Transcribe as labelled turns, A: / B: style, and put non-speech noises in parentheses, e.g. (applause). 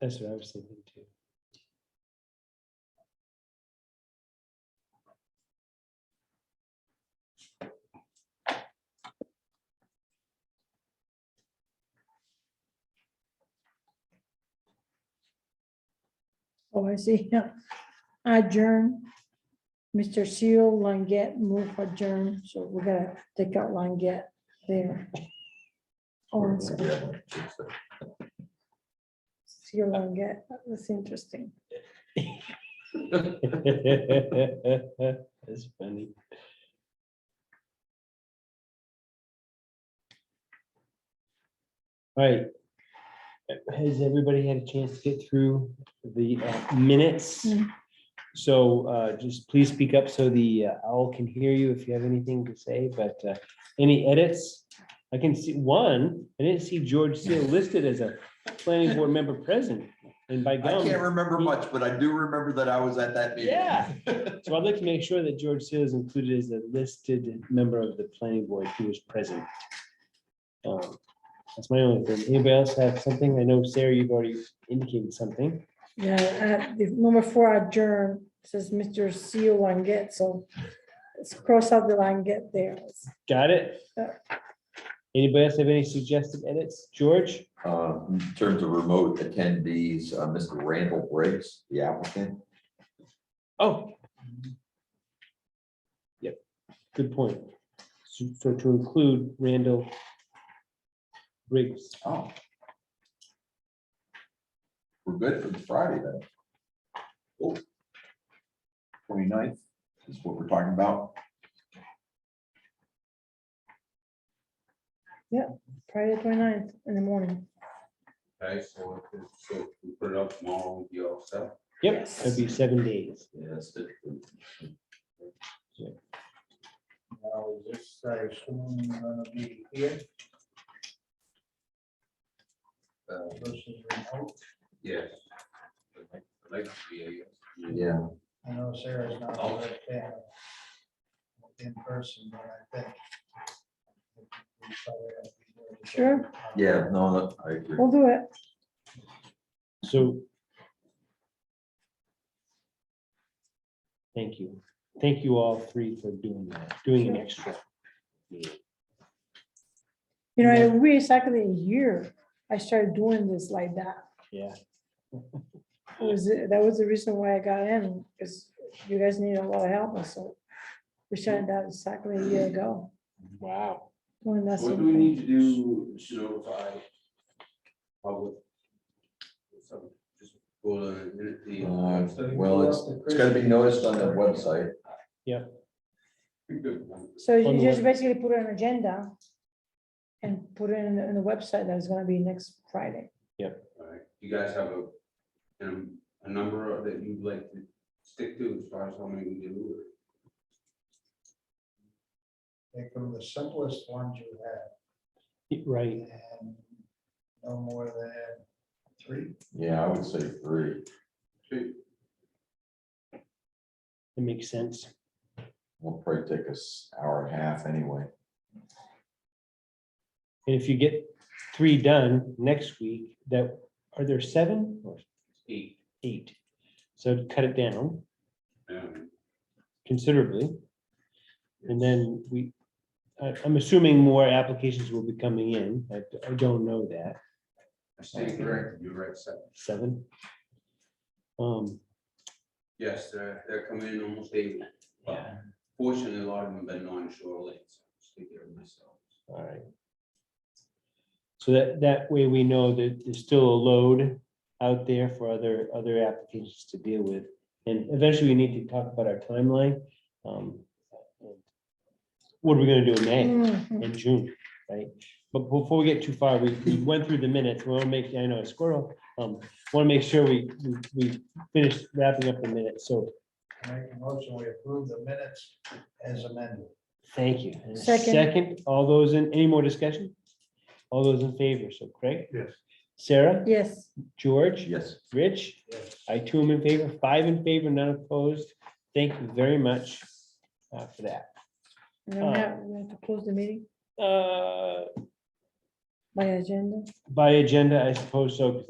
A: That's what I was thinking too.
B: Oh, I see. (laughs) Yeah. Adjourn. Mr. Seal, Longgett, move adjourn. So we're gonna take out Longgett there. Oh, so Seal, Longgett, that's interesting.
A: (laughs) That's funny. All right. Has everybody had a chance to get through the uh, minutes?
B: Hmm.
A: So uh, just please speak up so the uh, owl can hear you if you have anything to say, but uh, any edits? I can see one, I didn't see George Seal listed as a planning board member present and by
C: I
A: gum.
C: can't remember much, but I do remember that I was at that meeting.
A: Yeah. (laughs) So I'd like to make sure that George Seal is included as a listed member of the planning board who was present. Um, That's my only thing. Anybody else have something? I know, Sarah, you've already indicated something.
B: Yeah, uh, the number four adjourn says Mr. Seal, Longgett, so let's cross out the Longgett there.
A: Got it?
B: Yeah.
A: Anybody else have any suggested edits? George?
C: Uh, In terms of remote attendees, uh, Mr. Randall Briggs, the applicant,
A: Oh. Yep, good point. So so to include Randall Briggs.
C: oh. We're good for Friday then. Oh. 29th is what we're talking about.
B: Friday 29th in the morning.
D: Okay, so, if it- so if we put it up tomorrow, we'll be all set.
A: Yep,
B: Yes.
A: that'd be seven days.
C: Yes.
E: Now, is this, I assume, gonna be here? Uh, versus remote,
D: Yes. I'd like- I'd like to be here, yes.
C: Yeah,
E: I know Sarah's not
D: Oh.
E: right there. In person, but I think. we probably have to be here.
B: Sure.
C: yeah, no, I agree.
B: We'll do it.
A: So. Thank you. Thank you all three for doing that, doing an extra. meeting.
B: You know, we exactly a year I started doing this like that.
A: Yeah,
B: It was, that was the reason why I got in, because you guys need a lot of help, and so we shut it down exactly a year ago.
A: wow.
B: When that's,
D: What do we need to do to notify public? Some- Just go to the- the.
C: Uh,
D: website?
C: Well, it's, it's gonna be noticed on the website.
D: Good.
B: so
A: On
B: you
A: the
B: just
A: web-
B: basically put an agenda and put it in, in the website that's gonna be next Friday.
D: All right. You guys have a, um, a number of- that you'd like to stick to as far as how many we do? or-
E: Take from the simplest ones you have,
A: Right,
E: and no more than three.
C: Yeah, I would say three.
D: two?
A: it makes sense.
C: Will probably take us hour and a half anyway.
A: And if you get three done next week, that, are there seven or
D: Eight.
A: eight? So cut it down
D: um,
A: considerably. And then we, I, I'm assuming more applications will be coming in. I, I don't know that.
D: I stand corrected, you're right, seven.
A: seven. Um,
D: Yes, they're, they're coming in almost daily. Well,
A: Yeah.
D: Fortunately, a lot of them have been on shore lanes. so I just take care of myself.
A: all right. So that, that way we know that there's still a load out there for other, other applications to deal with. And eventually we need to talk about our timeline. Um What are we gonna do in May?
B: Mhm.
A: in June, right? But before we get too far, we, we went through the minutes, we want to make, I know, a squirrel, um, want to make sure we, we, we finish wrapping up the minutes, so
E: Make a motion, we approve the minutes as amended.
A: thank you. And a
B: Second.
A: Second, all those in, any more discussion? All those in favor, so Craig?
E: Yes.
A: Sarah,
B: Yes,
A: George,
C: Yes.
A: Rich,
E: Yes.
A: I two am in favor, five in favor, none opposed. Thank you very much uh, for that.
B: and then we have, we have to close the meeting
A: Uh,
B: by agenda.
A: by agenda, I suppose so, because